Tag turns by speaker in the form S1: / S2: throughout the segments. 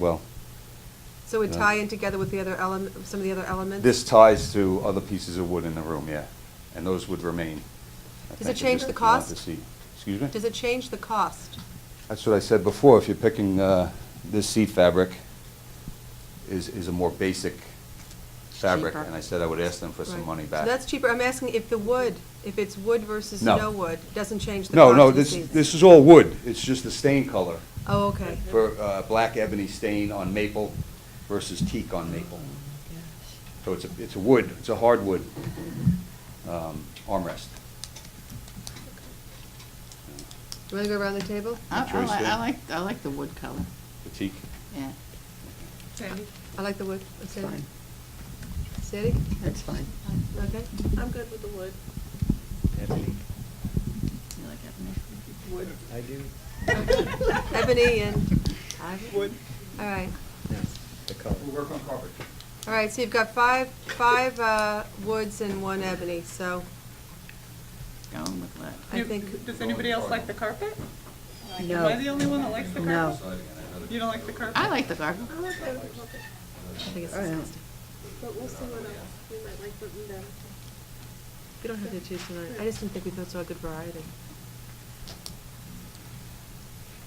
S1: well,
S2: So it
S1: Yeah.
S2: tie in together with the other element, some of the other elements?
S1: this ties to other pieces of wood in the room, yeah, and those would remain. I
S2: Does it
S1: think, if
S2: change
S1: you-
S2: the
S1: if you want to
S2: cost?
S1: see. Excuse me?
S2: Does it change the cost?
S1: That's what I said before, if you're picking, uh, this seat fabric is, is a more basic fabric,
S2: Cheaper.
S1: and I said I would ask them for some
S2: Right.
S1: money back.
S2: So that's cheaper. I'm asking if the wood, if it's wood versus
S1: No.
S2: no wood, doesn't change the cost
S1: No,
S2: of
S1: no,
S2: the
S1: this,
S2: seats.
S1: this is all wood, it's just the stain color
S2: Oh, okay.
S1: for, uh, black ebony stain on maple versus teak on maple.
S2: Oh,
S1: So it's a, it's a wood, it's a hardwood, um, armrest.
S2: You want to go around the table?
S3: I, I
S1: Choice
S3: like,
S1: there.
S3: I like, I like the wood color,
S1: The teak?
S3: yeah,
S2: I like the wood.
S3: it's
S2: Okay.
S3: fine,
S2: Sandy?
S3: that's fine.
S2: Okay.
S4: I'm good with the wood.
S5: Ebony.
S3: You like ebony?
S4: Wood.
S5: I do.
S2: Ebony and ivory?
S5: Wood.
S2: All right.
S5: The color.
S1: work on carpet.
S2: All right, so you've got five, five uh, woods and one ebony, so
S3: Going with that.
S2: I think...
S4: Does anybody else like the carpet? Like, Am
S6: No.
S4: I the only one that likes the carpet?
S6: No.
S4: You don't like the carpet?
S3: I like the garden.
S2: I think it's
S6: Oh, yeah.
S2: disgusting.
S7: But we'll see what else, we might like what we got.
S2: We don't have to choose tonight. I just didn't think we thought saw a good variety.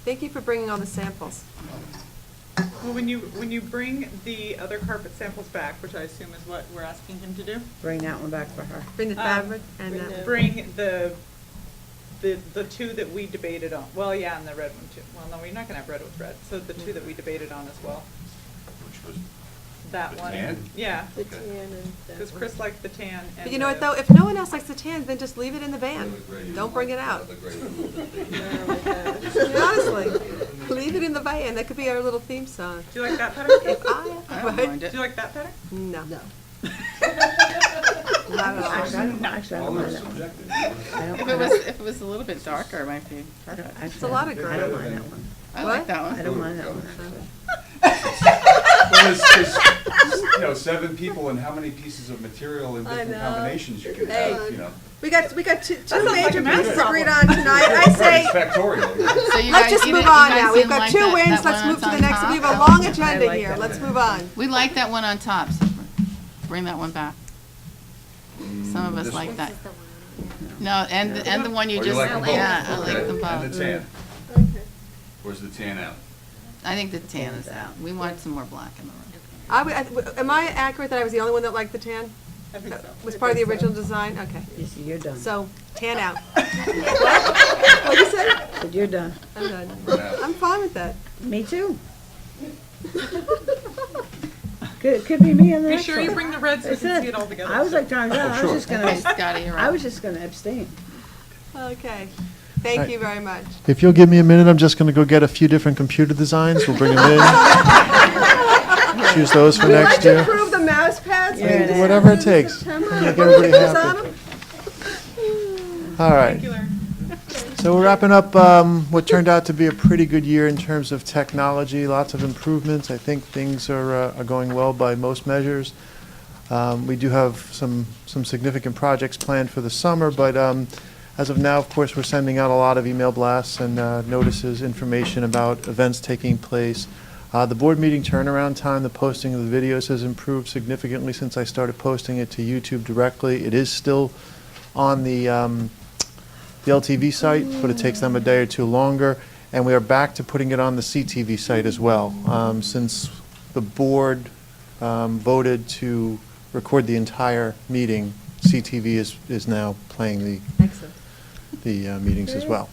S2: Thank you for bringing all the samples.
S4: Well, when you, when you bring the other carpet samples back, which I assume is what we're asking him to do.
S6: Bring that one back for her.
S2: Bring the
S4: um,
S2: fabric and
S7: bring
S2: that one.
S7: the-
S4: Bring the, the, the two that we debated on, well, yeah, and the red one too. Well, no, we're not gonna have red with red, so the two that we debated on as well.
S1: Which was
S4: That
S1: The
S4: one.
S1: tan?
S4: Yeah,
S7: The tan and that
S4: because
S7: one.
S4: Chris liked the tan and
S2: But you know what,
S4: the-
S2: though, if no one else likes the tan, then just leave it in the van. Don't bring it out. Honestly, leave it in the van. That could be our little theme song.
S4: Do you like that better?
S2: If I,
S3: I don't
S2: right?
S3: mind
S4: Do
S3: it.
S4: you like that better?
S2: No.
S6: No.
S2: Not at all.
S6: Actually, I don't, actually, I don't mind that one. I don't-
S3: If
S6: I
S3: it was,
S6: don't-
S3: if it was a little bit darker, it might be
S6: I don't-
S3: perfect.
S6: actually,
S2: a lot of
S6: I don't
S2: gray.
S6: mind that one.
S3: I like
S2: What?
S3: that
S6: I
S3: one.
S6: don't mind that one, actually.
S1: Well, there's, there's, you know, seven people and how many pieces of material and
S2: I
S1: different
S2: know.
S1: combinations you can
S2: Hey.
S1: have, you know.
S2: We got, we got two, two
S4: sounds like
S2: major
S4: a math
S2: pieces
S4: problem.
S2: agreed on tonight. I
S1: Right,
S2: say,
S1: It's factorial. you know.
S3: So you
S2: let's
S3: guys-
S2: just
S3: you
S2: move
S3: di- you
S2: on
S3: guys
S2: now. We've
S3: didn't
S2: got
S3: like
S2: two
S3: that-
S2: wins.
S3: that
S2: Let's
S3: one
S2: move to
S3: that's
S2: the
S3: on
S2: next. We have a
S3: top?
S2: long
S6: I
S2: agenda
S6: like
S2: here.
S6: that
S2: Let's
S6: one.
S2: move on.
S3: We like that one on top, so br- bring that one back. Some of us
S1: This
S3: like
S1: one?
S3: that. No, and, the- and the one you
S1: Oh,
S3: just,
S1: like them both?
S3: yeah, I like
S1: Okay. And
S3: them
S1: the
S3: both.
S1: tan,
S7: Okay.
S1: where's the tan out?
S3: I think the tan is out. We want some more black in the room.
S2: I would- I- Am I accurate that I was the only one that liked the tan?
S4: I think so.
S2: Was part of the original design? Okay.
S6: You see, You're done.
S2: So, tan out. What'd you say?
S6: Said You're done.
S2: I'm done.
S1: We're out.
S2: I'm fine with that.
S6: Me too. Could, could be me in the
S4: Be
S6: next
S4: sure you
S6: one.
S4: bring the red so we
S6: That's
S4: can see it all
S6: it.
S4: together.
S6: I was like, John, John, I was just
S3: Okay,
S6: gonna,
S3: Scotty, you're
S6: I was
S3: up.
S6: just gonna abstain.
S2: Okay. Thank you very much.
S8: If you'll give me a minute, I'm just going to go get a few different computer designs. We'll bring them in. Choose those for
S2: Would you like
S8: next
S2: to
S8: year.
S2: approve the mouse pads?
S6: Yeah, it is.
S8: Whatever it takes. Make everybody happy. All right. So we're wrapping up um, what turned out to be a pretty good year in terms of technology, lots of improvements. I think things are, uh, are going well by most measures. Um, we do have some, some significant projects planned for the summer, but um, as of now, of course, we're sending out a lot of email blasts and uh, notices, information about events taking place. Uh, the board meeting turnaround time, the posting of the videos has improved significantly since I started posting it to YouTube directly. It is still on the, um, the LTV site, but it takes them a day or two longer. And we are back to putting it on the CTV site as well. Um, Since the board um, voted to record the entire meeting, CTV is, is now playing the,
S2: Excellent.
S8: the uh, meetings as well.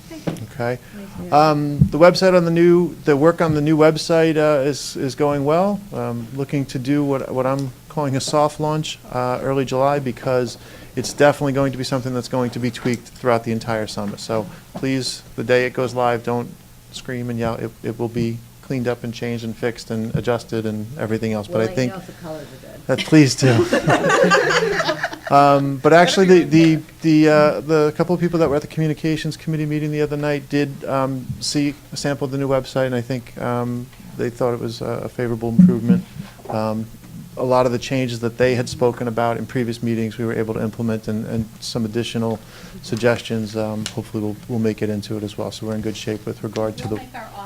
S8: Okay?
S6: Nice.
S8: Um, The website on the new, the work on the new website uh, is, is going well. Um, Looking to do what, what I'm calling a soft launch uh, early July because it's definitely going to be something that's going to be tweaked throughout the entire summer. So please, the day it goes live, don't scream and yell. It, it will be cleaned up and changed and fixed and adjusted and everything else. But I think,
S6: the colors are good.
S8: that please do. Um, But actually, the, the, the, uh, the couple of people that were at the communications committee meeting the other night did um, see, sampled the new website, and I think um, they thought it was a favorable improvement. Um, A lot of the changes that they had spoken about in previous meetings, we were able to implement, and, and some additional suggestions, um, hopefully will, will make it into it as well. So we're in good shape with regard to the,
S9: We'll make our